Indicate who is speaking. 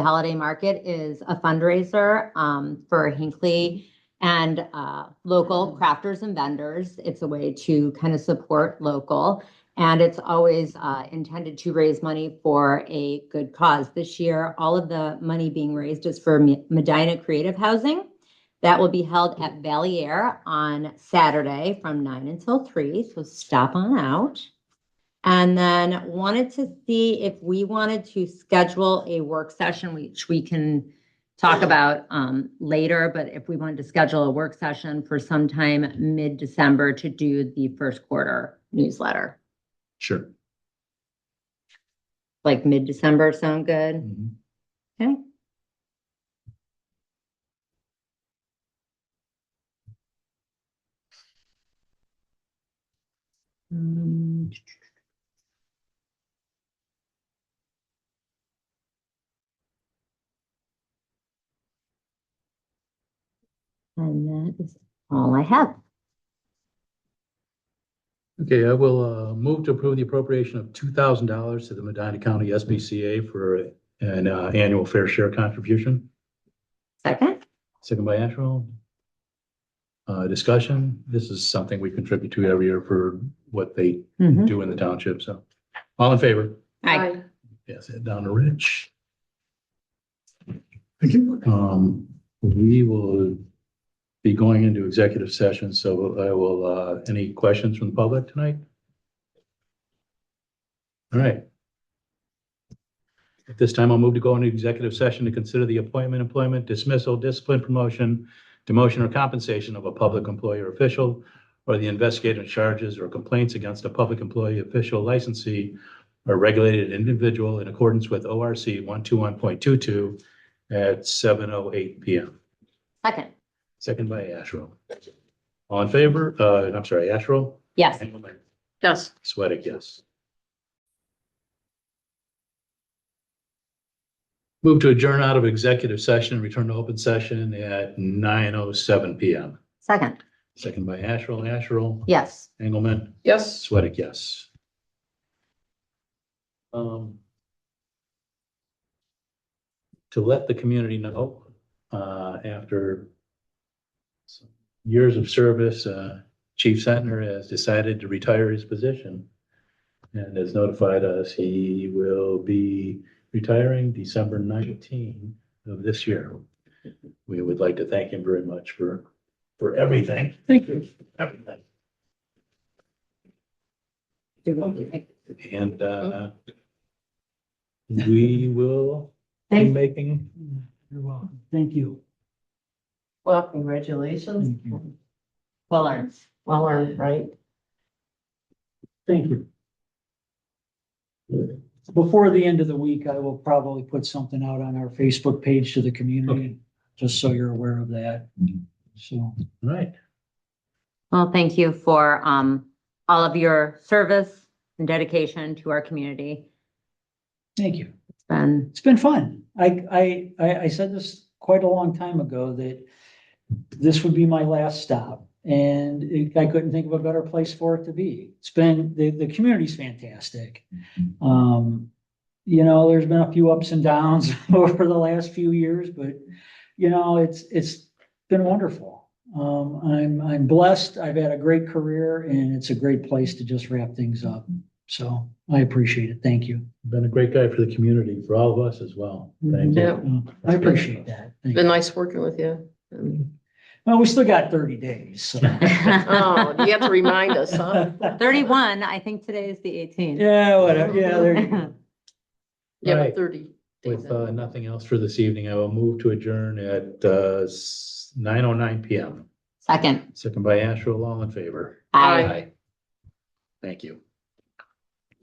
Speaker 1: The Holiday Market is a fundraiser um, for Hinkley and uh, local crafters and vendors. It's a way to kind of support local. And it's always uh, intended to raise money for a good cause. This year, all of the money being raised is for Me- Medina Creative Housing. That will be held at Valier on Saturday from nine until three, so stop on out. And then wanted to see if we wanted to schedule a work session, which we can talk about um later, but if we wanted to schedule a work session for sometime mid-December to do the first quarter newsletter.
Speaker 2: Sure.
Speaker 1: Like mid-December sound good? Okay. Um, And that is all I have.
Speaker 2: Okay, I will uh, move to approve the appropriation of two thousand dollars to the Medina County SBCA for an uh, annual fair share contribution.
Speaker 1: Second?
Speaker 2: Second by Asherall. Uh, Discussion, this is something we contribute to every year for what they
Speaker 1: Mm-hmm.
Speaker 2: do in the township, so. All in favor?
Speaker 1: Aye.
Speaker 2: Yes, head down to Rich. Thank you. Um, we will be going into executive session, so I will, uh, any questions from the public tonight? All right. At this time, I'll move to go into executive session to consider the appointment, employment, dismissal, discipline, promotion, demotion or compensation of a public employee or official, or the investigative charges or complaints against a public employee, official, licensee, or regulated individual in accordance with ORC 121.22 at 7:08 PM.
Speaker 1: Second?
Speaker 2: Second by Asherle. All in favor? Uh, I'm sorry, Asherle?
Speaker 1: Yes.
Speaker 3: Yes.
Speaker 2: Sweattick, yes. Move to adjourn out of executive session and return to open session at 9:07 PM.
Speaker 1: Second?
Speaker 2: Second by Asherle, Asherle,
Speaker 1: Yes.
Speaker 2: Engelmann,
Speaker 3: Yes.
Speaker 2: Sweattick, yes. Um, To let the community know, uh, after some years of service, uh, Chief Sentner has decided to retire his position and has notified us he will be retiring December 19 of this year. We would like to thank him very much for, for everything. Thank you. Everything. And uh, we will be
Speaker 4: Mm-hmm. Thank,
Speaker 2: making,
Speaker 4: you're welcome. Thank you.
Speaker 3: Well, congratulations.
Speaker 4: Thank you.
Speaker 3: Well earned. Well earned, right?
Speaker 4: Thank you. Before the end of the week, I will probably put something out on our Facebook page to the community, just so you're aware of that. So,
Speaker 2: right,
Speaker 1: Well, thank you for um, all of your service and dedication to our community.
Speaker 4: thank you.
Speaker 1: It's been,
Speaker 4: It's been fun. I, I, I, I said this quite a long time ago that this would be my last stop and it- I couldn't think of a better place for it to be. It's been, the, the community's fantastic. Um, you know, there's been a few ups and downs over the last few years, but you know, it's, it's been wonderful. Um, I'm, I'm blessed. I've had a great career and it's a great place to just wrap things up. So I appreciate it. Thank you.
Speaker 2: been a great guy for the community, for all of us as well. Thank you.
Speaker 3: Yeah.
Speaker 4: Uh, I appreciate that. Thank
Speaker 3: Been
Speaker 4: you.
Speaker 3: nice working with you. Um,
Speaker 4: Well, we still got thirty days, so.
Speaker 3: Oh, you have to remind us, huh?
Speaker 1: thirty-one, I think today is the eighteenth.
Speaker 4: Yeah, whatever, yeah, there you go.
Speaker 3: You have
Speaker 2: Right.
Speaker 3: a thirty. days
Speaker 2: With uh,
Speaker 3: out.
Speaker 2: nothing else for this evening, I will move to adjourn at uh, 9:09 PM.
Speaker 1: Second.
Speaker 2: Second by Asherle, all in favor?
Speaker 3: Aye.
Speaker 2: Thank you.